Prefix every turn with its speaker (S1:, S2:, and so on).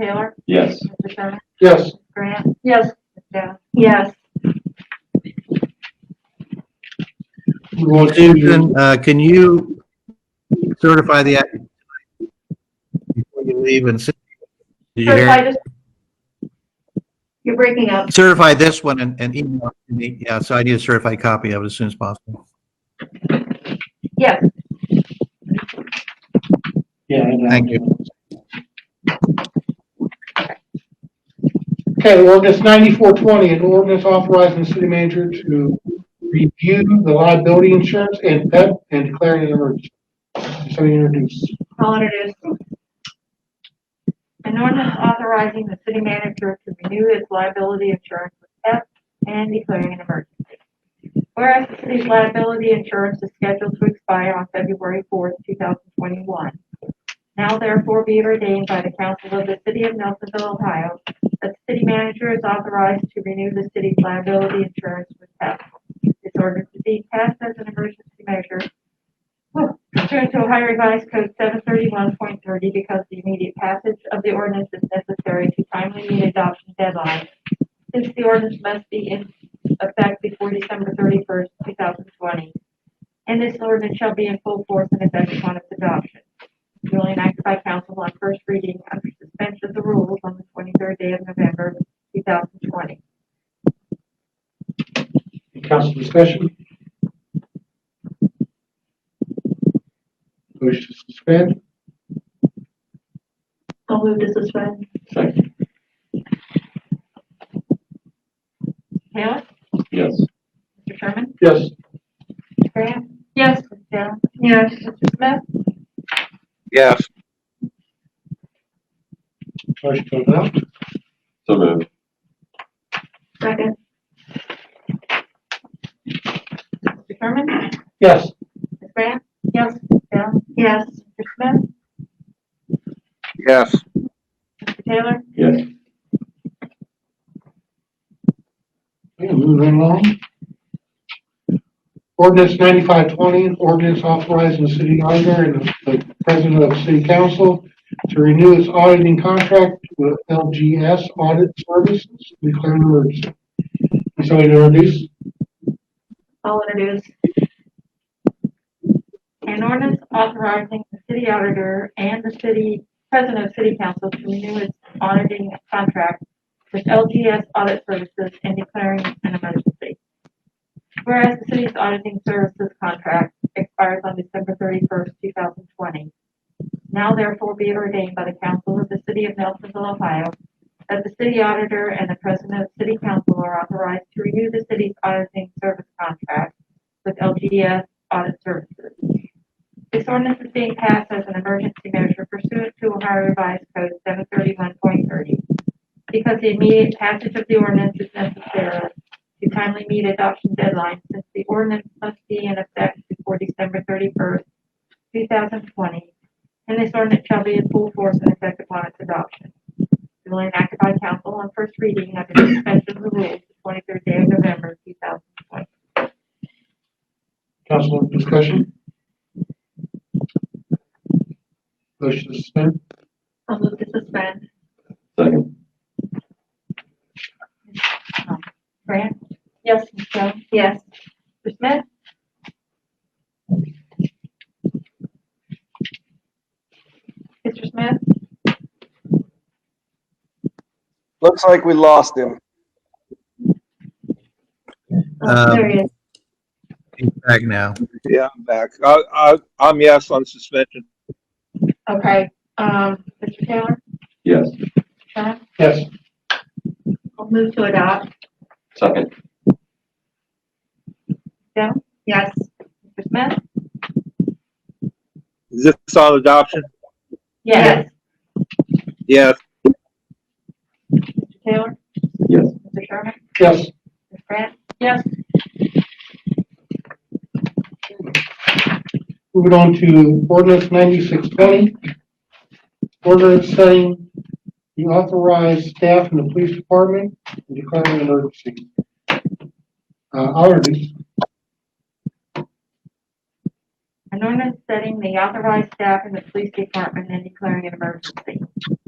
S1: Taylor?
S2: Yes.
S1: Mr. Sherman?
S3: Yes.
S1: Grant? Yes. Jones? Yes.
S3: We'll do-
S4: Susan, uh, can you certify the act before you leave and see? Did you
S1: Certify
S4: hear?
S1: this. You're breaking up.
S4: Certify this one and, and email it to me. Yeah, so I need a certified copy of it as soon as possible.
S1: Yes.
S3: Yeah. I know.
S4: Thank you.
S3: Okay, ordinance ninety-four twenty, an ordinance authorizing the city manager to review the liability insurance and PEP and declaring an emergency. Somebody introduce.
S1: I'll introduce. An ordinance authorizing the city manager to renew his liability insurance with F and declaring an emergency. Whereas the city's liability insurance is scheduled to expire on February fourth, two thousand twenty-one. Now therefore be ordained by the council of the city of Nelsonville, Ohio, that the city manager is authorized to renew the city's liability insurance with F. This ordinance is being passed as an emergency measure pursuant to Ohio Revised Code seven thirty-one point thirty, because the immediate passage of the ordinance is necessary to timely meet adoption deadline. Since the ordinance must be in effect before December thirty-first, two thousand twenty. And this ordinance shall be in full force and effect upon its adoption. duly enacted by council on first reading under suspension of the rules on the twenty-third day of November, two thousand twenty.
S3: Council discussion? Wish to suspend?
S1: I'll move to suspend.
S2: Second.
S1: Taylor?
S2: Yes.
S1: Mr. Sherman?
S3: Yes.
S1: Grant? Yes. Jones? Yes. Mr. Smith?
S4: Yes.
S3: Motion to adopt?
S2: So moved.
S1: Second. Mr. Sherman?
S3: Yes.
S1: Ms. Grant? Yes. Jones? Yes. Mr. Smith?
S4: Yes.
S1: Mr. Taylor?
S2: Yes.
S3: Yeah, moving right along. Ordinance ninety-five twenty, ordinance authorizing the city auditor and the president of the city council to renew its auditing contract with LGS Audit Services, declaring emergency. Somebody to introduce?
S1: I'll introduce. An ordinance authorizing the city auditor and the city, president of city council to renew its auditing contract with LGS Audit Services and declaring an emergency. Whereas the city's auditing services contract expires on December thirty-first, two thousand twenty. Now therefore be ordained by the council of the city of Nelsonville, Ohio, that the city auditor and the president of city council are authorized to renew the city's auditing service contract with LGDS Audit Services. This ordinance is being passed as an emergency measure pursuant to Ohio Revised Code seven thirty-one point thirty. Because the immediate passage of the ordinance is necessary to timely meet adoption deadline, since the ordinance must be in effect before December thirty-first, two thousand twenty, and this ordinance shall be in full force and effect upon its adoption duly enacted by council on first reading under the suspension of the rules the twenty-third day of November, two thousand twenty.
S3: Council discussion? Motion to suspend?
S1: I'll move to suspend.
S2: Second.
S1: Grant? Yes. Ms. Jones? Yes. Mr. Smith? Mr. Smith?
S5: Looks like we lost him.
S4: Um,
S1: Oh, There he is.
S4: He's back now.
S5: Yeah, I'm back. I, I, I'm yes on suspension.
S1: Okay, um, Mr. Taylor?
S2: Yes.
S1: Sherman?
S3: Yes.
S1: I'll move to adopt.
S2: Second.
S1: Jones? Yes. Mr. Smith?
S5: Is this on adoption?
S1: Yes.
S5: Yes,
S1: Mr. Taylor?
S2: Yes.
S1: Mr. Sherman?
S3: Yes.
S1: Ms. Grant? Yes.
S3: Moving on to ordinance ninety-six twenty. Ordinance setting the authorized staff in the police department and declaring an emergency. Uh, I'll introduce.
S1: An ordinance setting the authorized staff in the police department and declaring an emergency.